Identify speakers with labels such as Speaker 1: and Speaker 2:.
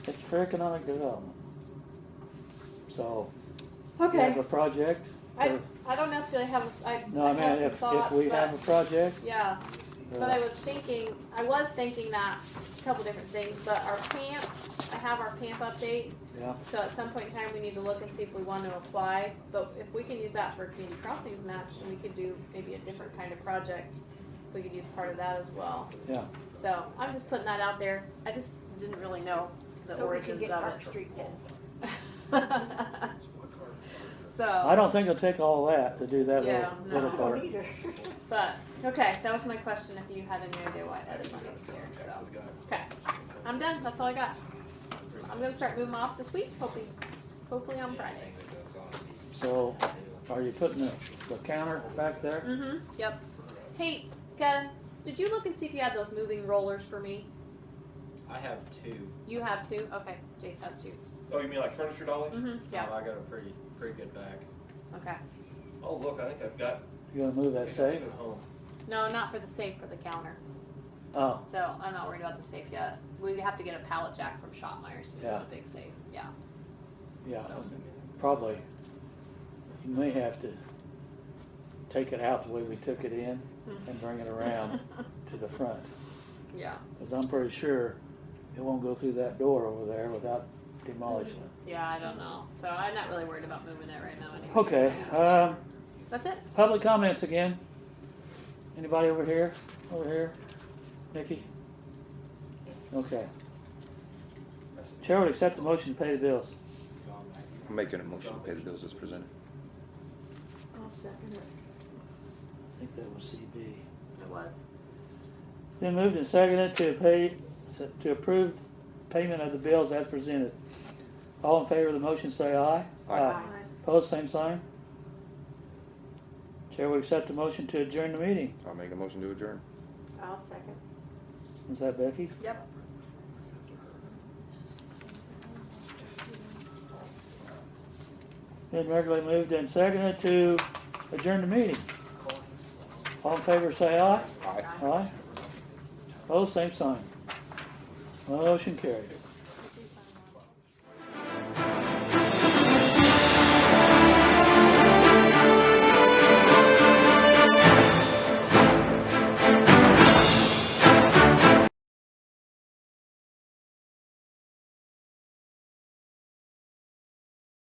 Speaker 1: It's for economic development. So, we
Speaker 2: Okay.
Speaker 1: have a project.
Speaker 2: I,
Speaker 1: or-
Speaker 2: I don't necessarily have, I,
Speaker 1: uh, No,
Speaker 2: I
Speaker 1: I mean,
Speaker 2: have some
Speaker 1: if, if
Speaker 2: thoughts,
Speaker 1: we
Speaker 2: but,
Speaker 1: have a project,
Speaker 2: yeah. But I
Speaker 1: uh,
Speaker 2: was thinking, I was thinking that a couple different things, but our PAMP, I have our PAMP update.
Speaker 1: yeah,
Speaker 2: So at some point in time, we need to look and see if we want to apply. But if we can use that for a community crossings match, and we could do maybe a different kind of project, we could use part of that as well.
Speaker 1: yeah.
Speaker 2: So I'm just putting that out there. I just didn't really know the
Speaker 3: So we can
Speaker 2: origins
Speaker 3: get
Speaker 2: of
Speaker 3: Park
Speaker 2: it.
Speaker 3: Street then.
Speaker 2: so
Speaker 1: I don't think it'll take all that to do that little,
Speaker 2: Oh. Yeah, no.
Speaker 1: little
Speaker 3: I
Speaker 1: part.
Speaker 3: don't either.
Speaker 2: But okay, that was my question. If you had any idea why other money was there, so okay, I'm done. That's all I got. I'm gonna start moving off this week. Hopefully, hopefully on Friday.
Speaker 1: So, are you putting the, the counter back there?
Speaker 2: Mm-hmm. Yep. Hey, Kevin, did you look and see if you had those moving rollers for me?
Speaker 4: I have two.
Speaker 2: You have two. Okay, Jace has 2
Speaker 5: Oh, you mean like furniture dollies?
Speaker 2: Mm-hmm. Yeah.
Speaker 4: Oh, I got a pretty, pretty good bag.
Speaker 2: Okay.
Speaker 5: Oh, look, I think I've got.
Speaker 1: You gonna move
Speaker 5: I
Speaker 1: that
Speaker 5: think I have
Speaker 1: safe?
Speaker 5: two at home.
Speaker 2: No, not for the safe for the counter.
Speaker 1: Oh,
Speaker 2: So I'm not worried about the safe yet. We have to get a pallet jack from Shotmeyer's.
Speaker 1: Yeah.
Speaker 2: The big safe. Yeah.
Speaker 1: yeah,
Speaker 2: So.
Speaker 1: probably. You may have to take it out the way we took it in
Speaker 2: Hmm.
Speaker 1: and bring it around to the front.
Speaker 2: Yeah.
Speaker 1: Cause I'm pretty sure it won't go through that door over there without demolishing it.
Speaker 2: Yeah, I don't know. So I'm not really worried about moving it right now. Anyway.
Speaker 1: Okay, um,
Speaker 2: That's it.
Speaker 1: public comments again. Anybody over here? Over here? Nikki? Okay. Chair would accept the motion to pay the bills.
Speaker 6: I'm making a motion to pay the bills as presented.
Speaker 3: I'll second it.
Speaker 1: I think that was CB.
Speaker 2: It was.
Speaker 1: Then moved and seconded to pay, to approve payment of the bills as presented. All in favor of the motion, say aye.
Speaker 6: Aye.
Speaker 1: Opposed, same sign. Chair would accept the motion to adjourn the meeting.
Speaker 6: I'll make a motion to adjourn.
Speaker 3: I'll second.
Speaker 1: Is that Becky?
Speaker 2: Yep.
Speaker 1: Been regularly moved and seconded to adjourn the meeting. All in favor, say aye.
Speaker 6: Aye.
Speaker 1: Aye. Opposed, same sign. Motion carried.